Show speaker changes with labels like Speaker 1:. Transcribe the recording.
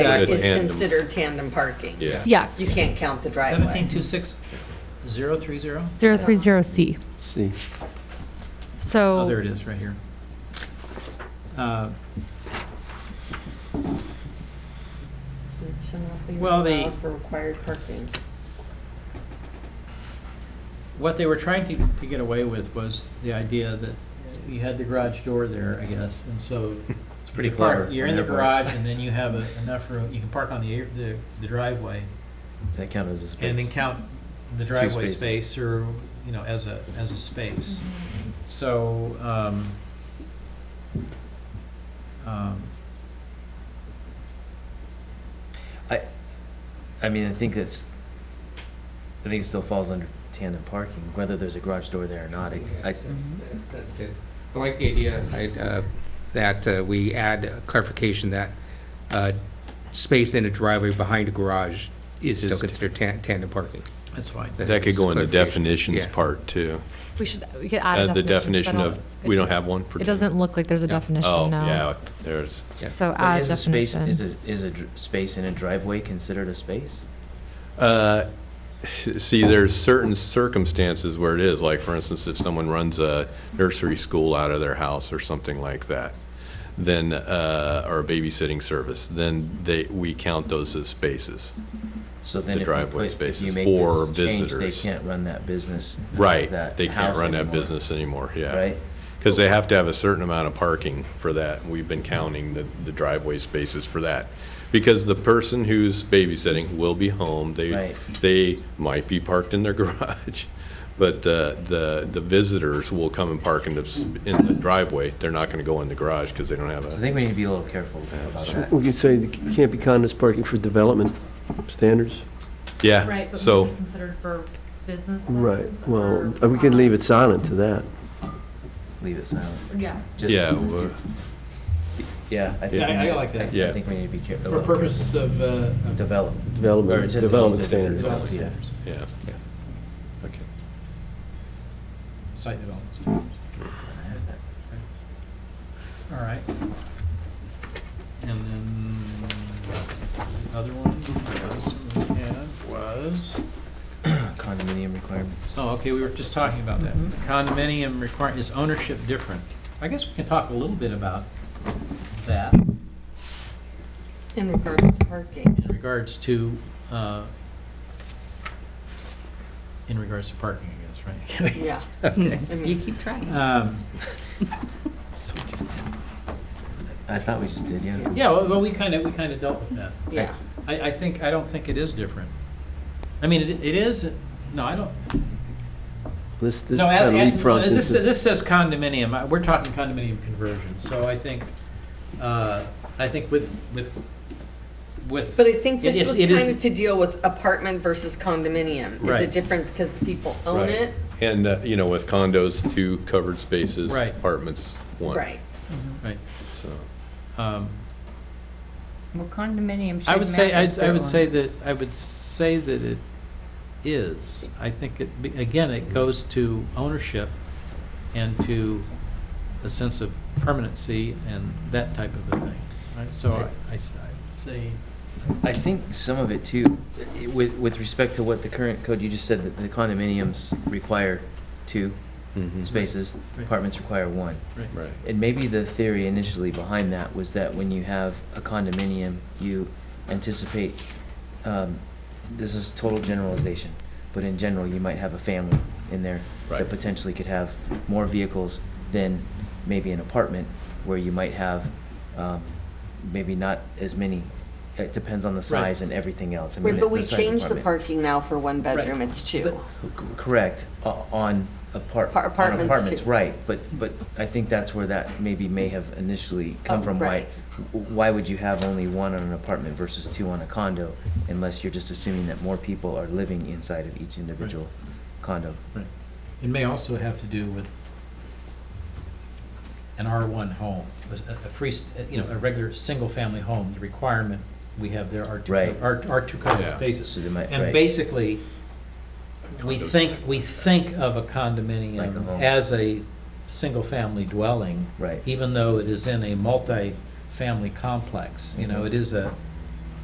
Speaker 1: Back
Speaker 2: is
Speaker 1: tandem.
Speaker 2: considered tandem parking.
Speaker 1: Yeah.
Speaker 3: Yeah,
Speaker 2: You can't count the driveway.
Speaker 4: Seventeen two six zero three zero?
Speaker 3: 030C.
Speaker 5: See,
Speaker 4: Oh,
Speaker 3: So,
Speaker 4: there it is, right here. Uh,
Speaker 2: Shall not be
Speaker 4: Well, the-
Speaker 2: allowed For required parking.
Speaker 4: What they were trying to, to get away with was the idea that you had the garage door there, I guess, and so. It's
Speaker 6: pretty clever
Speaker 4: You're in the
Speaker 6: on their
Speaker 4: garage and then you have a- enough room, you can park on the, air- the the driveway
Speaker 6: That count as a space.
Speaker 4: and then count the driveway
Speaker 6: spaces.
Speaker 4: space or, you know, as a, as a space. So, um, um,
Speaker 6: I, I mean, I think that's, I think it still falls under tandem parking, whether there's a garage door there or not. I- I,
Speaker 7: That's Mm-hmm. good. I like the idea I, uh, that uh, we add clarification that uh, space in a driveway behind a garage is still
Speaker 1: Is-
Speaker 7: considered tan- tandem parking.
Speaker 4: that's fine.
Speaker 1: That could go in the
Speaker 7: Clarification.
Speaker 1: definitions
Speaker 7: Yeah.
Speaker 1: part too.
Speaker 3: we should, we could add
Speaker 1: Uh,
Speaker 3: a
Speaker 1: The definition
Speaker 3: but I
Speaker 1: of, we don't have one for.
Speaker 3: It doesn't look like there's a
Speaker 7: Yeah.
Speaker 1: Oh,
Speaker 3: definition
Speaker 1: yeah,
Speaker 3: now.
Speaker 1: there's,
Speaker 7: yeah.
Speaker 3: So
Speaker 6: but
Speaker 3: add
Speaker 6: is a space, is
Speaker 3: Ah, definition.
Speaker 6: a, is a dr- space in a driveway considered a space?
Speaker 1: uh, see, there's certain circumstances where it is, like for instance, if someone runs a nursery school out of their house or something like that, then, uh, or a babysitting service, then they, we count those as spaces.
Speaker 6: So then
Speaker 1: The
Speaker 6: if you
Speaker 1: driveway
Speaker 6: put- if
Speaker 1: spaces
Speaker 6: you make
Speaker 1: for
Speaker 6: this change, They
Speaker 1: visitors.
Speaker 6: can't run that business. out of
Speaker 1: Right,
Speaker 6: that
Speaker 1: they can't
Speaker 6: house
Speaker 1: run that
Speaker 6: anymore,
Speaker 1: business anymore, yeah.
Speaker 6: Right?
Speaker 1: Because they have to have a certain amount of parking for that. We've been counting the the driveway spaces for that. Because the person who's babysitting will be home. They,
Speaker 6: Right.
Speaker 1: they might be parked in their garage, but uh, the, the visitors will come and park in the, s- in the driveway. They're not going to go in the garage because they don't have
Speaker 6: I
Speaker 1: a,
Speaker 6: think we need to be a little careful about that.
Speaker 5: we could say it can't be condos parking for development standards.
Speaker 1: yeah. So,
Speaker 3: considered for business.
Speaker 5: Right, well, uh, we could leave it silent to that.
Speaker 6: Leave it silent.
Speaker 3: Yeah.
Speaker 6: Just-
Speaker 1: yeah, well,
Speaker 6: Yeah, I think.
Speaker 4: Yeah, I- I like that.
Speaker 1: Yeah.
Speaker 6: I think we need to be careful.
Speaker 4: For purposes of, uh, of
Speaker 6: Develop. or
Speaker 5: Development,
Speaker 6: just
Speaker 5: development
Speaker 6: the-
Speaker 5: standards.
Speaker 4: development
Speaker 6: Yeah.
Speaker 4: standards,
Speaker 1: yeah. Okay.
Speaker 4: site development standards. All right. And then the other one was, we had was,
Speaker 6: Condominium requirements.
Speaker 4: oh, okay, we were just talking about that.
Speaker 2: Mhm.
Speaker 4: Condominium require, is ownership different? I guess we can talk a little bit about that
Speaker 2: In regards to parking.
Speaker 4: in regards to, uh, in regards to parking, I guess, right?
Speaker 2: Yeah. Mm. I
Speaker 8: You
Speaker 2: mean,
Speaker 8: keep trying.
Speaker 4: Um,
Speaker 6: I thought we just did, yeah.
Speaker 4: Yeah, well, well, we kind of, we kind of dealt with that.
Speaker 2: Yeah.
Speaker 4: I, I think, I don't think it is different. I mean, it it is, no, I don't.
Speaker 5: This, this
Speaker 4: no,
Speaker 5: kind of
Speaker 4: and- and
Speaker 5: leapfrogs
Speaker 4: This,
Speaker 5: into-
Speaker 4: this says condominium, I- we're talking condominium conversion, so I think, uh, I think with, with, with.
Speaker 2: But I think
Speaker 4: it
Speaker 2: this
Speaker 4: is-
Speaker 2: was
Speaker 4: it is-
Speaker 2: kind of to deal with apartment versus condominium. Is
Speaker 4: Right.
Speaker 2: it different because the people own
Speaker 1: Right.
Speaker 2: it?
Speaker 1: And, uh, you know, with condos, two covered spaces.
Speaker 4: Right.
Speaker 1: Apartments, one.
Speaker 2: Right.
Speaker 4: Right,
Speaker 1: So,
Speaker 4: um,
Speaker 8: Well, condominiums
Speaker 4: I would
Speaker 8: should
Speaker 4: say, I,
Speaker 8: match
Speaker 4: I
Speaker 8: their
Speaker 4: would
Speaker 8: own.
Speaker 4: say that, I would say that it is. I think it, be- again, it goes to ownership and to a sense of permanency and that type of a thing. Right, so I, I s- I would say,
Speaker 6: I think some of it too, i- with, with respect to what the current code, you just said that the condominiums require two
Speaker 1: mhm.
Speaker 6: spaces,
Speaker 4: Right.
Speaker 6: apartments require one.
Speaker 4: right.
Speaker 1: right.
Speaker 6: And maybe the theory initially behind that was that when you have a condominium, you anticipate, um, this is total generalization, but in general, you might have a family in there
Speaker 1: Right.
Speaker 6: that potentially could have more vehicles than maybe an apartment where you might have, um, maybe not as many. It depends on the
Speaker 4: Right.
Speaker 6: size and everything else. I mean,
Speaker 2: Wait, But
Speaker 6: the
Speaker 2: we
Speaker 6: size of the
Speaker 2: changed the
Speaker 6: apartment.
Speaker 2: parking now for one bedroom,
Speaker 4: Right.
Speaker 2: it's two.
Speaker 6: Correct, o- on apart,
Speaker 2: Pa-
Speaker 6: on
Speaker 2: apartments
Speaker 6: apartments,
Speaker 2: too.
Speaker 6: right, but, but I think that's where that maybe may have initially come
Speaker 2: Oh,
Speaker 6: from. Why,
Speaker 2: right.
Speaker 6: why would you have only one on an apartment versus two on a condo? Unless you're just assuming that more people are living inside of each individual condo.
Speaker 4: Right. It may also have to do with an R1 home, a a free, you know, a regular, single-family home, the requirement we have there are two,
Speaker 6: Right.
Speaker 4: are are two kinds
Speaker 1: Yeah.
Speaker 4: of
Speaker 6: So
Speaker 4: bases.
Speaker 6: they might-
Speaker 4: And
Speaker 6: right.
Speaker 4: basically, we
Speaker 1: Condos.
Speaker 4: think, we think of a
Speaker 6: Like a
Speaker 4: condominium
Speaker 6: home.
Speaker 4: as a single-family dwelling.
Speaker 6: Right.
Speaker 4: Even though it is in a multi-family complex, you know,
Speaker 6: Mhm.
Speaker 4: it is a,